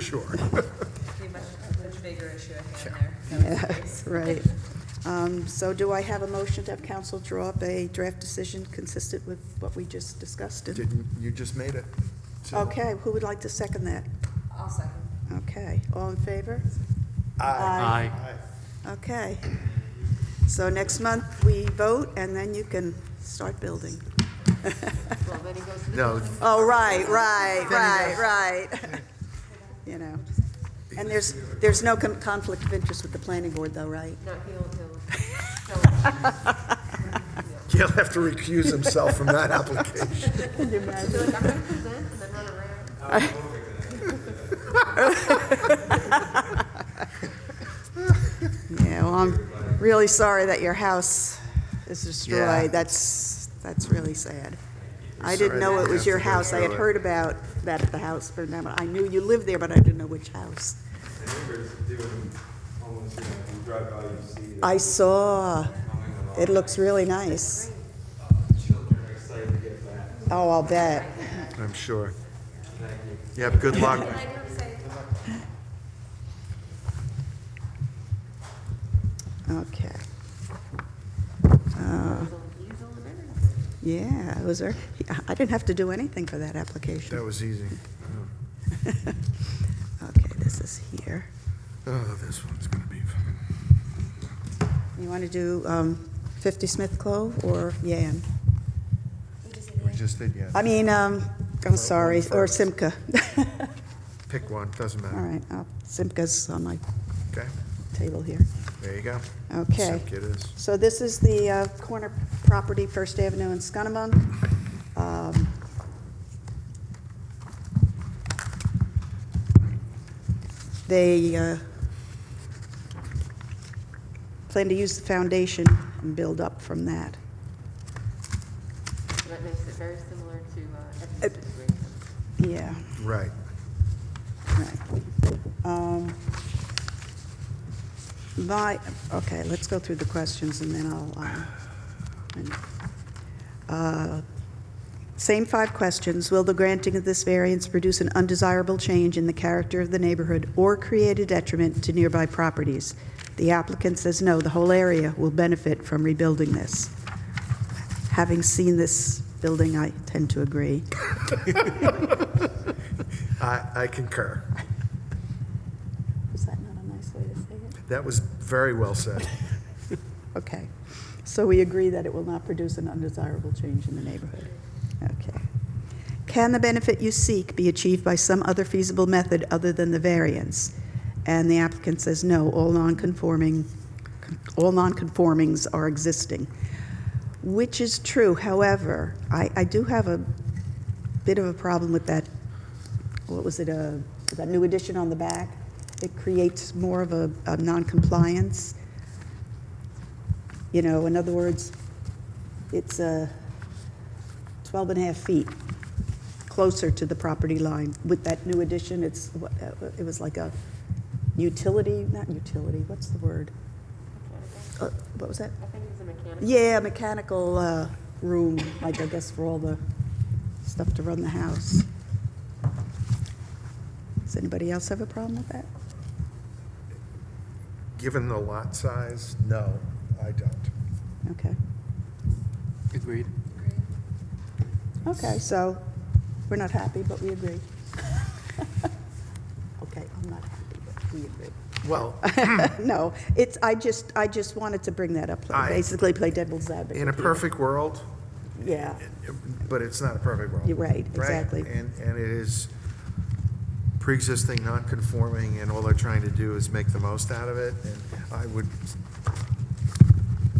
Sure. Be much, much bigger issue at hand there. Yes, right. Um, So do I have a motion to have council draw up a draft decision consistent with what we just discussed? Didn't, you just made it. So- Okay, who would like to second that? I'll second. Okay, all in favor? Aye. Okay. So next month, we vote, and then you can start building. Well, then he goes to the. No, Oh, right, right, Then right, right. You know, and there's, there's no con- conflict of interest with the planning board, though, right? No, he'll, he'll have to recuse himself from that application. he'll. I'm gonna present and then run around. Yeah, well, I'm really sorry that your house is Yeah. destroyed. That's, that's really sad. I sorry didn't know that it you have was to your go house. I had through it. heard about that at the house burned down. but I knew you lived there, but I didn't know which house. The neighbors doing almost, you know, you drive by, you see the I saw. coming along. It looks really nice. Children are excited to get back. Oh, I'll bet. I'm sure. Thank you. Yep, good luck. And I never say, Okay. Uh, he's on the river. Yeah, it was there. I didn't have to do anything for that application. That was easy. Okay, this is here. Oh, this one's gonna be. You want to do um, 50 Smith Clove or Yam? We just did, yeah. I mean, um, I'm sorry, or Simca. Pick one, doesn't All matter. right, uh, Simca's on my Okay, table here. there you go. Okay. Sick it is. So this is the uh, corner property, First Avenue and Scunamunk. Um, They uh, plan to use the foundation and build up from that. So That makes it very similar to, uh, It- Ed's Yeah. situation. Right. Right. Um, My, okay, let's go through the questions and then I'll, um, and, uh, same five questions. Will the granting of this variance produce an undesirable change in the character of the neighborhood or create a detriment to nearby properties? The applicant says no, the whole area will benefit from rebuilding this. Having seen this building, I tend to agree. I, I concur. Is that not a nice way to say it? That was very well said. Okay, so we agree that it will not produce an undesirable change in the neighborhood. Okay. Can the benefit you seek be achieved by some other feasible method other than the variance? And the applicant says, no, all non-conforming, all non-conformings are existing, which is true. However, I, I do have a bit of a problem with that, what was it, uh, that new addition on the back? It creates more of a, a non-compliance. You know, in other words, it's uh, 12 and a half feet closer to the property line. With that new addition, it's, what, uh, it was like a utility, not utility, what's the word? Uh, What was that? I think it's a mechanical. Yeah, mechanical uh, room, like I guess for all the stuff to run the house. Does anybody else have a problem with that? Given the lot size, no, I don't. Okay. Agreed. Okay, so we're not happy, but we agree. Okay, I'm not happy, but we agree. Well, No, it's, I just, I just wanted to bring that up, I- basically play devil's advocate. in a perfect world, Yeah, But it's not a perfect world. You're right, exactly. And, and it is pre-existing, non-conforming, and all they're trying to do is make the most out of it. And I would,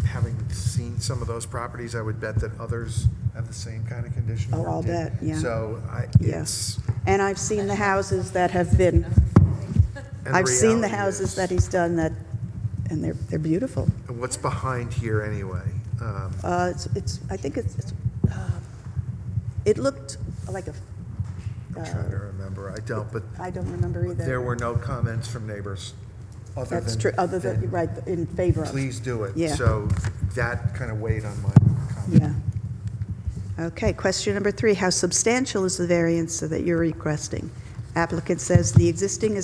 having seen some of those properties, I would bet that others have the same kind of condition. Oh, or I'll did. bet, yeah. So I, yes. it's. And I've seen the houses that have been, and I've seen the reality houses is- that he's done that, and they're, they're beautiful. and What's behind here anyway? Um, Uh, It's, it's, I think it's, it's, uh, it looked like a, I'm trying to remember, I don't, but Uh, I don't remember either. there were no comments from neighbors other than. That's true, other than, right, in favor of. please do it. Yeah. So that kind of weighed on my comment. Yeah. Okay, question number three, how substantial is the variance that you're requesting? Applicant says the existing is